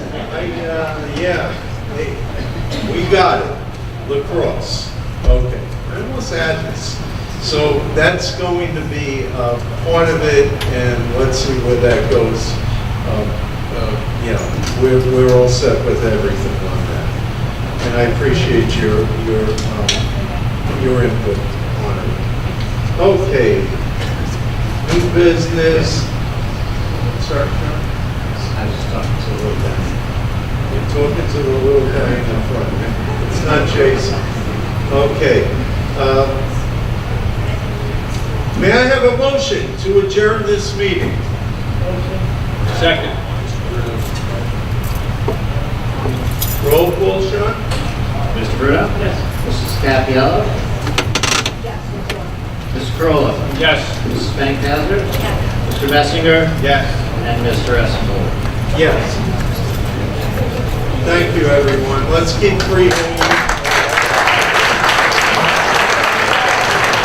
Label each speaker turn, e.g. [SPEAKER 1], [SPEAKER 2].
[SPEAKER 1] They, uh, yeah, they, we got it, lacrosse.
[SPEAKER 2] Okay.
[SPEAKER 1] It was sadness. So that's going to be uh, part of it, and let's see where that goes. Um, uh, You know, we're, we're all set with everything on that. And I appreciate your, your, um, your input on it. Okay. New business. Sorry, John?
[SPEAKER 2] I was talking to a little guy.
[SPEAKER 1] You're talking to the little guy in the front. It's not Jason. Okay. uh, May I have a motion to adjourn this meeting?
[SPEAKER 2] Second.
[SPEAKER 1] Roll call, Sean?
[SPEAKER 2] Mr. Bruno? Yes.
[SPEAKER 3] Mrs. Capiello? Yes. Mrs. Corolla?
[SPEAKER 2] Yes.
[SPEAKER 3] Mrs. Fankhauser? Mr. Messinger?
[SPEAKER 1] Yes.
[SPEAKER 3] And Mr. Esplor?
[SPEAKER 1] Yes. Thank you, everyone. Let's keep breathing.